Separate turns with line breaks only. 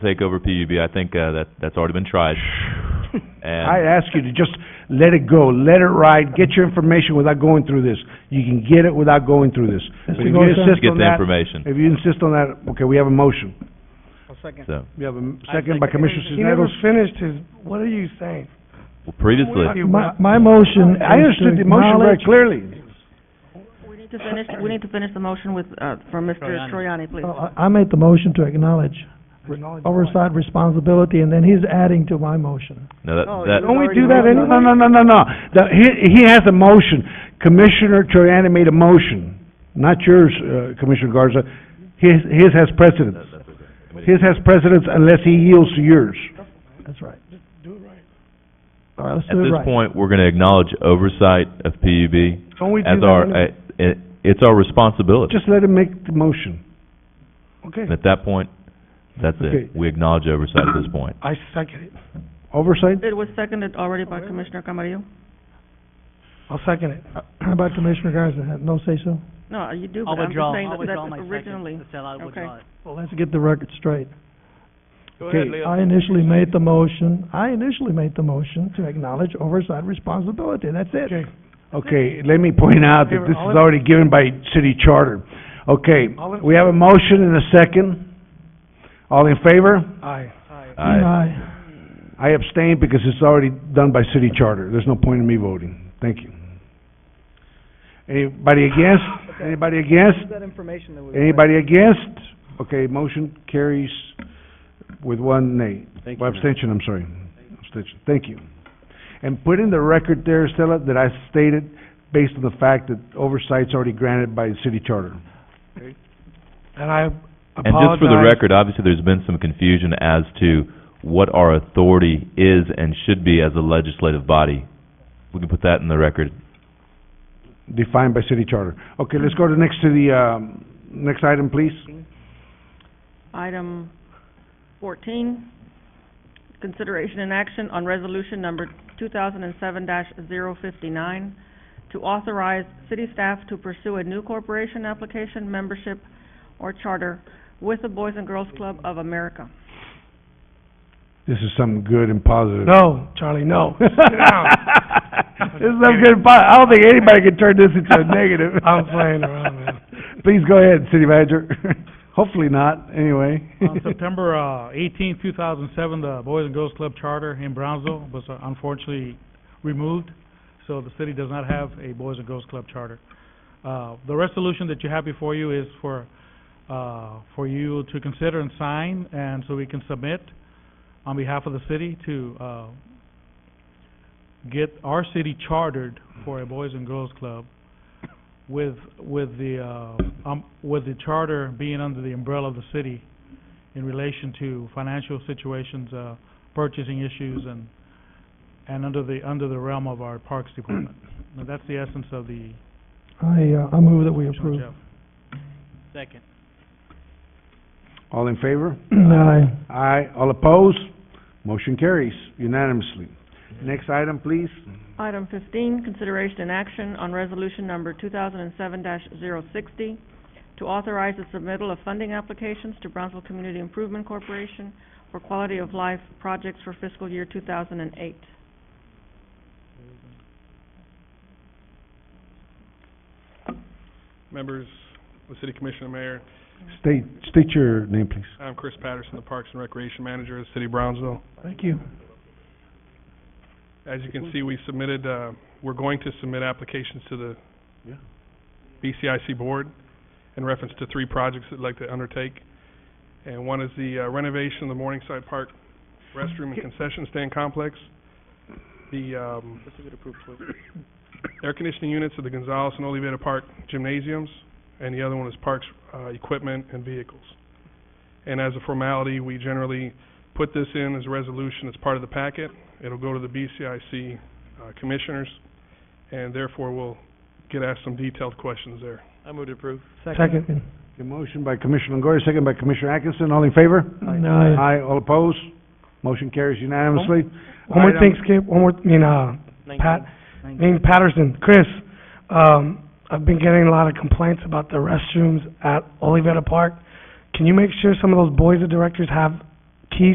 take over PUB. I think uh, that that's already been tried. And
I ask you to just let it go, let it ride, get your information without going through this. You can get it without going through this. But if you
Goldstein?
insist
get
on
the
that-
information.
If you insist on that, okay, we have a motion.
I'll second.
So
We have a m- second by Commissioner
He never
Sisnetos.
finished his, what are you saying?
well, previously,
Well,
My, my motion is
I understood the
to
motion very
acknowledge-
clearly.
We need to finish, we need to finish the motion with, uh, from Mr. Troyani, please.
Oh.
Uh, I I made the motion to acknowledge oversight responsibility, and then he's adding to my motion.
no, that,
No,
that
you
Don't we
already
do that
voted
any,
on
no, no, no, no, no. The, he, he has a motion. Commissioner Troyani made a motion, not yours, uh, Commissioner Garza. His, his has precedence. His has precedence unless he yields to yours.
That's right. Do it right. All right, let's
at
do it
this
right.
point we're going to acknowledge oversight of PUB
Don't we do
as
that?
our uh,
any-
it, it's our responsibility.
Just let him make the motion.
Okay,
and at that point, that's
Okay.
it. We acknowledge oversight at this point.
I second it.
Oversight?
It was seconded already
Oh,
by Commissioner Camarillo.
I'll second it.
How about Commissioner Garza, no say-so?
No, uh, you do,
I'll
but I'm
withdraw,
just saying
I'll
that
withdraw
that
my
originally.
second. Estela, I
Okay.
withdraw it.
Well, let's get the record straight.
Okay.
I initially made the motion, I initially made the motion to acknowledge oversight responsibility, that's it.
Okay.
Okay, let me point out that this is already given by city charter. Okay,
All in-
we have a motion and a second. All in favor?
Aye.
I,
Aye.
I abstain because it's already done by city charter. There's no point in me voting. Thank you. Anybody against? Anybody against?
That information that was.
Anybody against? Okay, motion carries with one nay. Well, abstention, I'm sorry. Abstention, thank you. And put in the record there, Stella, that I stated based on the fact that oversight's already granted by the city charter.
And I
and just for the
apologize.
record, obviously there's been some confusion as to what our authority is and should be as a legislative body. We can put that in the record.
defined by city charter. Okay, let's go to next to the, um, next item, please.
Item fourteen, consideration and action on resolution number two thousand and seven 59 to authorize city staff to pursue a new corporation application, membership, or charter with the Boys and Girls Club of America.
This is something good and positive.
No, Charlie, no.
This is something good and po- I don't think anybody can turn this into a negative.
I'm playing around, man.
Please go ahead, city manager. Hopefully not, anyway.
On September uh, 18, 2007, the Boys and Girls Club Charter in Brownsville was uh, unfortunately removed, so the city does not have a Boys and Girls Club Charter. Uh, The resolution that you have before you is for, uh, for you to consider and sign, and so we can submit on behalf of the city to uh, get our city chartered for a Boys and Girls Club with, with the, uh, um, with the charter being under the umbrella of the city in relation to financial situations, uh, purchasing issues, and, and under the, under the realm of our Parks Department. Now, that's the essence of the,
I, uh, I move that we
Commissioner
approve.
Jeff.
Second.
All in favor?
Aye.
Aye. All opposed? Motion carries unanimously. Next item, please.
Item fifteen, consideration and action on resolution number two thousand and seven 60 to authorize the submittal of funding applications to Brownsville Community Improvement Corporation for quality of life projects for fiscal year two thousand and eight.
members, the city commissioner, mayor.
State, state your name, please.
I'm Chris Patterson, the Parks and Recreation Manager of the City of Brownsville.
Thank you.
As you can see, we submitted, uh, we're going to submit applications to the BCIC board in reference to three projects that'd like to undertake. And one is the uh, renovation of the Morningside Park restroom and concession stand complex. The, um, air conditioning units at the Gonzales and Olivetta Park gymnasiums. And the other one is parks, uh, equipment and vehicles. And as a formality, we generally put this in as a resolution as part of the packet. It'll go to the BCIC uh, commissioners, and therefore we'll get asked some detailed questions there.
I move to approve.
Second.
A motion by Commissioner Longoria, second by Commissioner Atkinson. All in favor?
Aye.
Aye, all opposed? Motion carries unanimously.
One more
Item-
thing, Skip, one more, I mean, uh, Pat, I mean Patterson, Chris, um, I've been getting a lot of complaints about the restrooms at Olivetta Park. Can you make sure some of those boys of directors have